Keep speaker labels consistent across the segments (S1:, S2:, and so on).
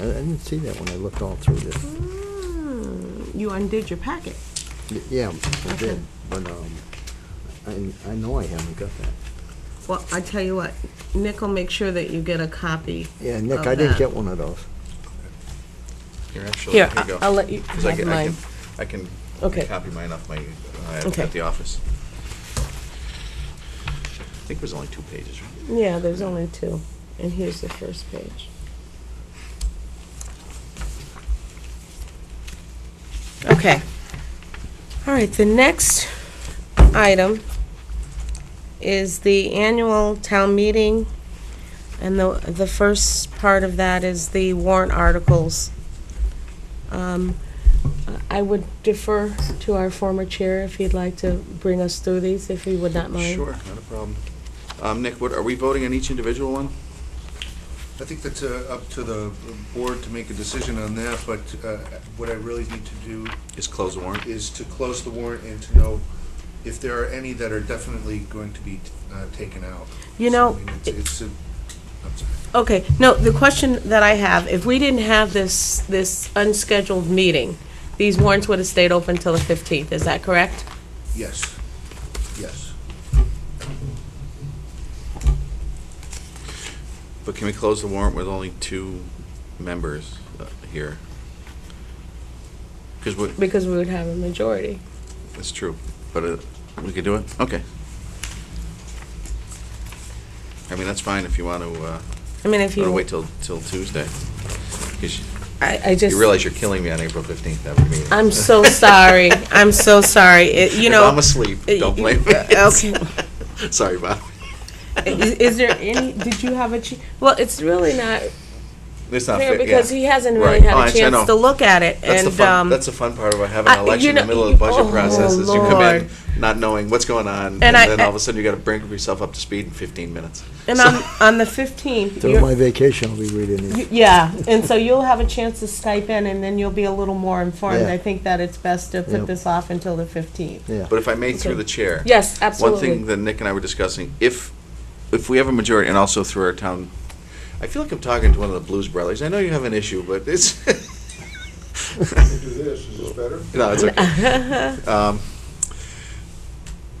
S1: I I didn't see that when I looked all through this.
S2: Hmm, You undid your packet.
S1: Y- Yeah, I
S2: Okay.
S1: did, but um, I I know I haven't got that.
S2: Well, I tell you what, Nick will make sure that you get a copy.
S1: Yeah, Nick,
S2: of
S1: I didn't
S2: that.
S1: get one of those.
S3: Here, actually,
S4: Here,
S3: here you
S4: I-
S3: go.
S4: I'll let you
S3: 'Cause I
S4: have
S3: can- I
S4: mine.
S3: can- I can
S4: Okay.
S3: copy mine off my, uh,
S4: Okay.
S3: at the office. I think it was only two pages, right?
S2: Yeah, there's only two, and here's the first page. Okay. All right, the next item is the annual town meeting, and the, the first part of that is the warrant articles. Um, I would defer to our former chair if he'd like to bring us through these, if he would not mind.
S3: Sure, not a problem. Um, Nick, what, are we voting on each individual one?
S5: I think that's uh, up to the board to make a decision on that, but uh, what I really need to do
S3: Just close the warrant?
S5: is to close the warrant and to know if there are any that are definitely going to be uh, taken out.
S2: You know,
S5: So, I mean, it's- It's, a- I'm sorry.
S2: Okay, no, the question that I have, if we didn't have this, this unscheduled meeting, these warrants would have stayed open till the 15th, is that correct?
S5: yes, yes.
S3: But can we close the warrant with only two members uh, here? Because we,
S2: Because we would have a majority.
S3: that's true, but uh, we could do it? Okay. I mean, that's fine if you want to, uh,
S2: I mean, if
S3: want to
S2: you,
S3: wait till, till Tuesday. 'Cause you-
S2: I, I just,
S3: You realize you're killing me on April 15th, that would mean.
S2: I'm so sorry, I'm so sorry, It- you know. uh,
S3: If I'm asleep, don't blame me.
S2: Okay,
S3: Sorry, Bob.
S2: is, is there any, did you have a, che- well, it's really not
S3: It's not
S2: fair,
S3: fair,
S2: because
S3: yeah.
S2: he hasn't really
S3: Right. Oh,
S2: had a
S3: actually, I
S2: chance to
S3: know.
S2: look at it,
S3: That's the
S2: and,
S3: fun,
S2: um,
S3: that's the fun part about having an
S2: I-
S3: election
S2: you
S3: in the
S2: know-
S3: middle of the budget
S2: oh,
S3: process, is you come
S2: Lord.
S3: in not knowing what's going on, and
S2: And I-
S3: then all of a sudden you gotta bring yourself up to speed in 15 minutes.
S2: and on, on the 15th.
S1: During
S2: you're-
S1: my vacation, I'll be reading
S2: Y-
S1: these.
S2: Yeah, and so you'll have a chance to Skype in, and then you'll be a little more informed.
S1: Yeah.
S2: I think that it's best to
S1: Yeah.
S2: put this off until the 15th.
S1: Yeah.
S3: But if I may, through the chair.
S2: Yes,
S3: One thing that Nick and I were discussing, if, if we have a majority, and also through our town, I feel like I'm talking to one of the Blues Brothers. I know you have an issue, but it's,
S6: do this, is this better?
S3: no, it's okay. Um,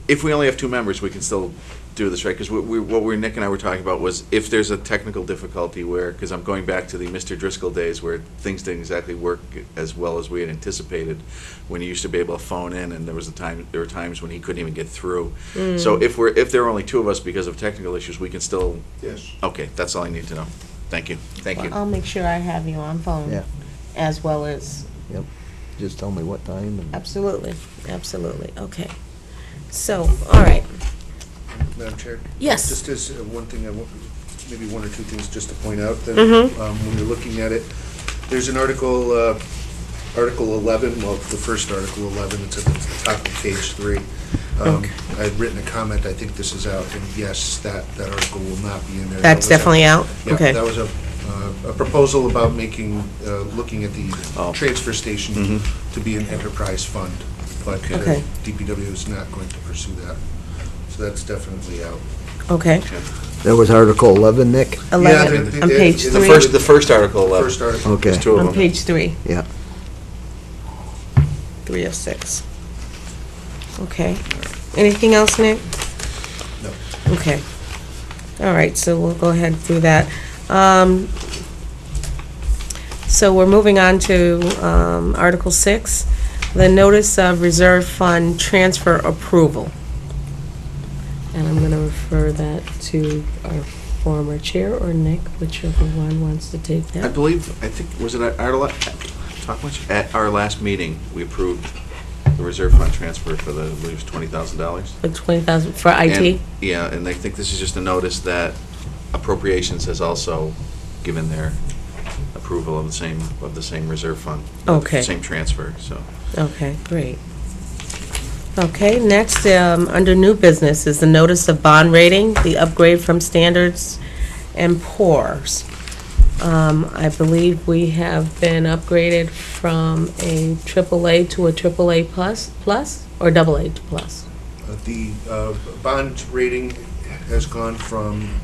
S3: If we only have two members, we can still do this, right? Because we, we- what we, Nick and I were talking about was if there's a technical difficulty where, because I'm going back to the Mr. Driscoll days where things didn't exactly work as well as we had anticipated, when you used to be able to phone in and there was a time, there were times when he couldn't even get through.
S2: Mm.
S3: So if we're, if there are only two of us because of technical issues, we can still,
S6: Yes.
S3: okay, that's all I need to know. Thank you, thank you.
S2: I'll make sure I have you on
S1: Yeah.
S2: phone as well as,
S1: Just tell me what time and.
S2: absolutely, absolutely, okay. So, all right,
S5: Madam Chair?
S2: Yes.
S5: Just as uh, one thing, I wa- maybe one or two things just to point out, then,
S2: Mhm.
S5: um, when you're looking at it, there's an article, uh, Article 11, well, the first Article 11, it's at the top of page three. Um, I've written a comment, I think this is out, and yes, that, that article will not be in there.
S2: that's
S5: That was
S2: definitely out?
S5: a- Yeah,
S2: Okay,
S5: that was a, uh, a proposal about making, uh, looking at
S3: Oh.
S5: the transfer station
S3: Mhm.
S5: to be an enterprise fund, but uh,
S2: Okay.
S5: DPW is not going to pursue that. So that's definitely out.
S2: okay.
S1: That was Article 11, Nick?
S5: Yeah,
S2: Eleven,
S5: the-
S2: on
S5: the-
S2: page
S5: the
S3: The
S2: three,
S3: first, the first article, uh,
S5: First article.
S1: Okay,
S3: there's two
S2: on
S3: of them.
S2: page three,
S1: yeah.
S2: three of six. Okay. Anything else, Nick?
S5: No. Uh,
S2: Okay. All right, so we'll go ahead through that. Um, So we're moving on to um, Article 6, the Notice of Reserve Fund Transfer Approval. And I'm going to refer that to our former chair or Nick, whichever one wants to take
S3: I
S2: that.
S3: believe, I think, was it at our, la- talk much? At our last meeting, we approved the reserve fund transfer for the, I believe, twenty thousand dollars.
S2: For 20,000, for IT?
S3: Yeah, and I think this is just a notice that appropriations has also given their approval of the same, of the same reserve fund. of the
S2: Okay.
S3: Same transfer, so.
S2: Okay, great. Okay, next, um, under new business is the notice of bond rating, the upgrade from standards and poors. Um, I believe we have been upgraded from a AAA to a AAA plus, plus, or double A plus?
S5: Uh, The uh, bond rating has gone from